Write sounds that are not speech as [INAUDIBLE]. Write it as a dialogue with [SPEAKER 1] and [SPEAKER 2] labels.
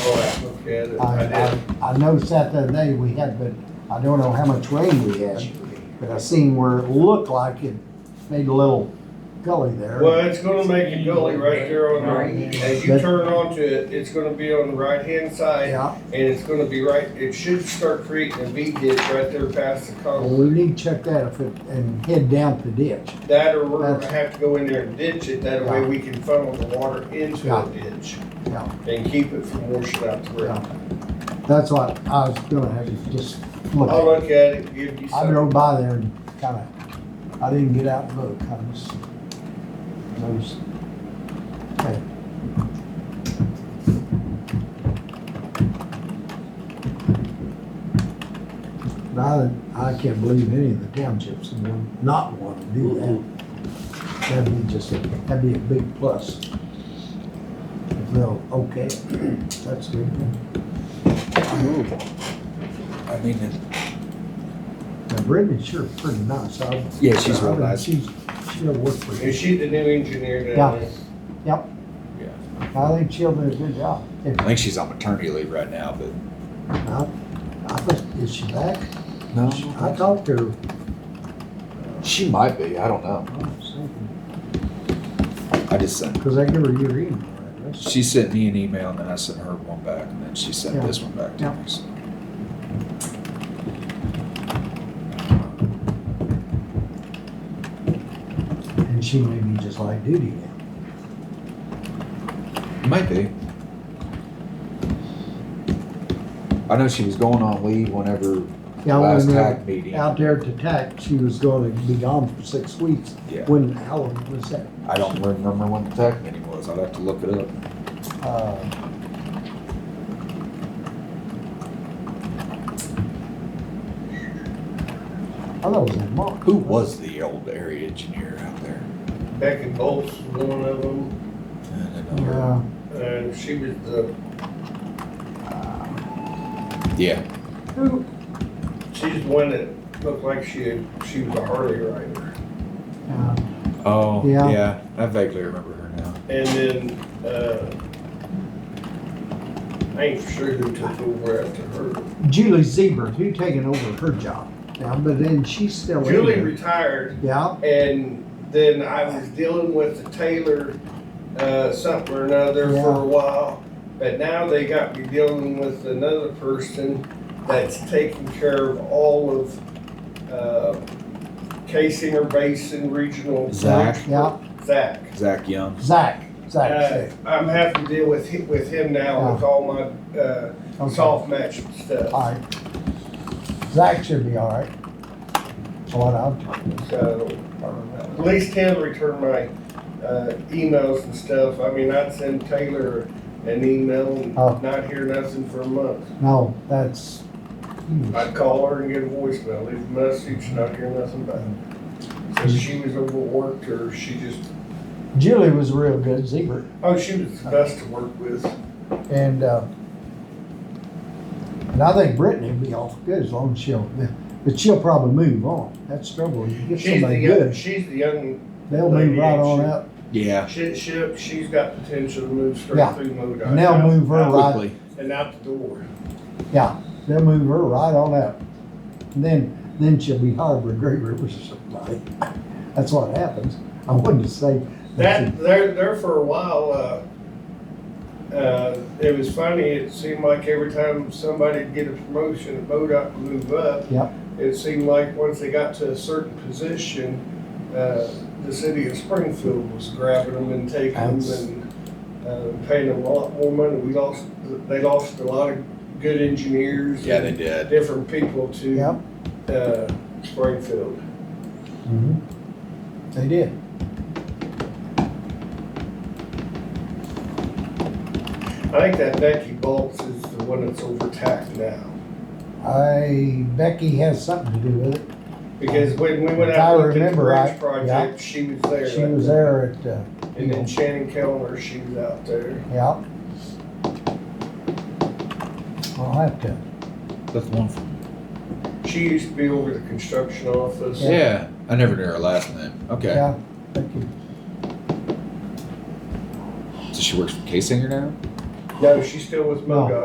[SPEAKER 1] look at it. I
[SPEAKER 2] I,
[SPEAKER 1] did.
[SPEAKER 2] I, I know Saturday night we had, but I don't know how much rain we had. But I seen where it looked like it made a little gully there.
[SPEAKER 1] Well, it's gonna make a gully right there on the, as you
[SPEAKER 2] That-
[SPEAKER 1] turn onto it, it's gonna be on the right-hand side.
[SPEAKER 2] Yeah,
[SPEAKER 1] And it's gonna be right, it should start creating a V ditch right there past the
[SPEAKER 2] well,
[SPEAKER 1] concrete.
[SPEAKER 2] we need to check that if it, and head down the ditch.
[SPEAKER 1] That or we're gonna
[SPEAKER 2] That's-
[SPEAKER 1] have to go in there and ditch it, that way
[SPEAKER 2] Yeah.
[SPEAKER 1] we can funnel the water into
[SPEAKER 2] Yeah.
[SPEAKER 1] the ditch.
[SPEAKER 2] Yeah.
[SPEAKER 1] And keep it from washing out the
[SPEAKER 2] Yeah.
[SPEAKER 1] ground.
[SPEAKER 2] That's what I was gonna have to just look
[SPEAKER 1] I'll
[SPEAKER 2] at.
[SPEAKER 1] look at it, give you
[SPEAKER 2] I
[SPEAKER 1] some.
[SPEAKER 2] drove by there and kinda, I didn't get out and look, I just, I was- okay. But I, I can't believe any of the townships would not want to do that. That'd be just, a- that'd be a big plus. If they'll, okay, that's good.
[SPEAKER 3] I mean, it-
[SPEAKER 2] Now Brenda's sure pretty nice. I-
[SPEAKER 3] Yeah, she's real
[SPEAKER 2] I mean,
[SPEAKER 3] nice.
[SPEAKER 2] She's, she'll work for you.
[SPEAKER 1] Is she the new engineer
[SPEAKER 2] Yeah.
[SPEAKER 1] down there?
[SPEAKER 2] I think she'll do a good job. If
[SPEAKER 3] I think she's on maternity leave right now, but.
[SPEAKER 2] not, I think, is she back?
[SPEAKER 3] No.
[SPEAKER 2] I talked to her.
[SPEAKER 3] She might be, I don't know. I just sent,
[SPEAKER 2] Cause I give her your email address.
[SPEAKER 3] she sent me an email and then I sent her one back and then she sent this one back to
[SPEAKER 2] Yeah.
[SPEAKER 3] me. so.
[SPEAKER 2] And she may be just like duty now.
[SPEAKER 3] Might be. I know she was going on leave whenever
[SPEAKER 2] Yeah,
[SPEAKER 3] last
[SPEAKER 2] when, uh,
[SPEAKER 3] TAC meeting.
[SPEAKER 2] out there to tack, she was gonna be gone for six weeks.
[SPEAKER 3] Yeah.
[SPEAKER 2] When, how long was that?
[SPEAKER 3] I don't remember when the TAC meeting was. I'd have to look it up.
[SPEAKER 2] Uh, I thought it was in March.
[SPEAKER 3] Who was the old area engineer out there?
[SPEAKER 1] Becky Bolt's one of them,
[SPEAKER 3] I don't know her.
[SPEAKER 2] Yeah,
[SPEAKER 1] and she was the,
[SPEAKER 3] Yeah,
[SPEAKER 1] who? She's the one that looked like she, had- she was a Harley rider.
[SPEAKER 2] yeah.
[SPEAKER 3] oh,
[SPEAKER 2] Yeah.
[SPEAKER 3] yeah, I vaguely remember her now.
[SPEAKER 1] And then, uh, I ain't sure who took over after her.
[SPEAKER 2] Julie Zebra, who taking over her job now, but then she's still. in
[SPEAKER 1] Julie
[SPEAKER 2] there.
[SPEAKER 1] retired,
[SPEAKER 2] Yeah,
[SPEAKER 1] and then I was dealing with the Taylor, uh, something or another for
[SPEAKER 2] Yeah.
[SPEAKER 1] a while. But now they got me dealing with another person that's taking care of all of, uh, Casinger Basin Regional.
[SPEAKER 3] Zach.
[SPEAKER 2] yeah,
[SPEAKER 1] Zach.
[SPEAKER 3] Zach Young.
[SPEAKER 2] Zach,
[SPEAKER 1] Uh,
[SPEAKER 2] Zach,
[SPEAKER 1] I'm having to deal with him, with him now with all my, uh,
[SPEAKER 2] Zach.
[SPEAKER 1] soft match stuff,
[SPEAKER 2] Alright. Zach should be alright. That's what I'm talking
[SPEAKER 1] so. At
[SPEAKER 2] about.
[SPEAKER 1] least Tim returned my uh, emails and stuff. I mean, I'd send Taylor an email and
[SPEAKER 2] Oh.
[SPEAKER 1] not hear nothing for a month.
[SPEAKER 2] No, that's, hmm,
[SPEAKER 1] I'd call her and get a voicemail, leave a message, not hear nothing back. So
[SPEAKER 2] Mm-hmm.
[SPEAKER 1] she was overworked or she just,
[SPEAKER 2] Julie was real good, Zebra,
[SPEAKER 1] oh, she was the best to work with.
[SPEAKER 2] and, uh, and I think Brittany will be awful good as long as she'll, but she'll probably move on. That's the trouble. You get
[SPEAKER 1] She's the
[SPEAKER 2] somebody
[SPEAKER 1] young,
[SPEAKER 2] good,
[SPEAKER 1] she's the young,
[SPEAKER 2] they'll move right on
[SPEAKER 1] She-
[SPEAKER 2] up.
[SPEAKER 3] Yeah.
[SPEAKER 1] she, she, she's got potential to move
[SPEAKER 2] Yeah.
[SPEAKER 1] straight through MoDOT.
[SPEAKER 2] And they'll move her
[SPEAKER 1] Out-
[SPEAKER 2] right
[SPEAKER 3] Quickly.
[SPEAKER 1] And out the door.
[SPEAKER 2] Yeah, they'll move her right on up. And then, then she'll be hired by Great River Supply. [LAUGHS] That's what happens. I wanted to say.
[SPEAKER 1] That, there, there for a while, uh, uh, it was funny, it seemed like every time somebody'd get a promotion, a MoDOT would move up.
[SPEAKER 2] Yep.
[SPEAKER 1] It seemed like once they got to a certain position, uh, the city of Springfield was grabbing them and taking them
[SPEAKER 3] That's-
[SPEAKER 1] and, uh, paying them a lot more money. We lost, they lost a lot of good engineers.
[SPEAKER 3] Yeah, they
[SPEAKER 1] and
[SPEAKER 3] did.
[SPEAKER 1] Different people
[SPEAKER 2] Yep.
[SPEAKER 1] to, uh, Springfield.
[SPEAKER 2] Mm-hmm. They did.
[SPEAKER 1] I think that Becky Bolts is the one that's overtaxed now.
[SPEAKER 2] I, Becky has something to do with it.
[SPEAKER 1] Because when we went
[SPEAKER 2] If I
[SPEAKER 1] out with the
[SPEAKER 2] remember
[SPEAKER 1] bridge
[SPEAKER 2] right,
[SPEAKER 1] project, she was there.
[SPEAKER 2] She was there at, uh,
[SPEAKER 1] And then Shannon Kellner, she was out there.
[SPEAKER 2] yeah. I'll have to,
[SPEAKER 3] That's one from.
[SPEAKER 1] She used to be over the construction office.
[SPEAKER 3] Yeah. I never knew her last name. Okay.
[SPEAKER 2] yeah, Becky.
[SPEAKER 3] So she works for K Singer now?
[SPEAKER 1] No, she's still with
[SPEAKER 2] No.
[SPEAKER 1] MoDOT.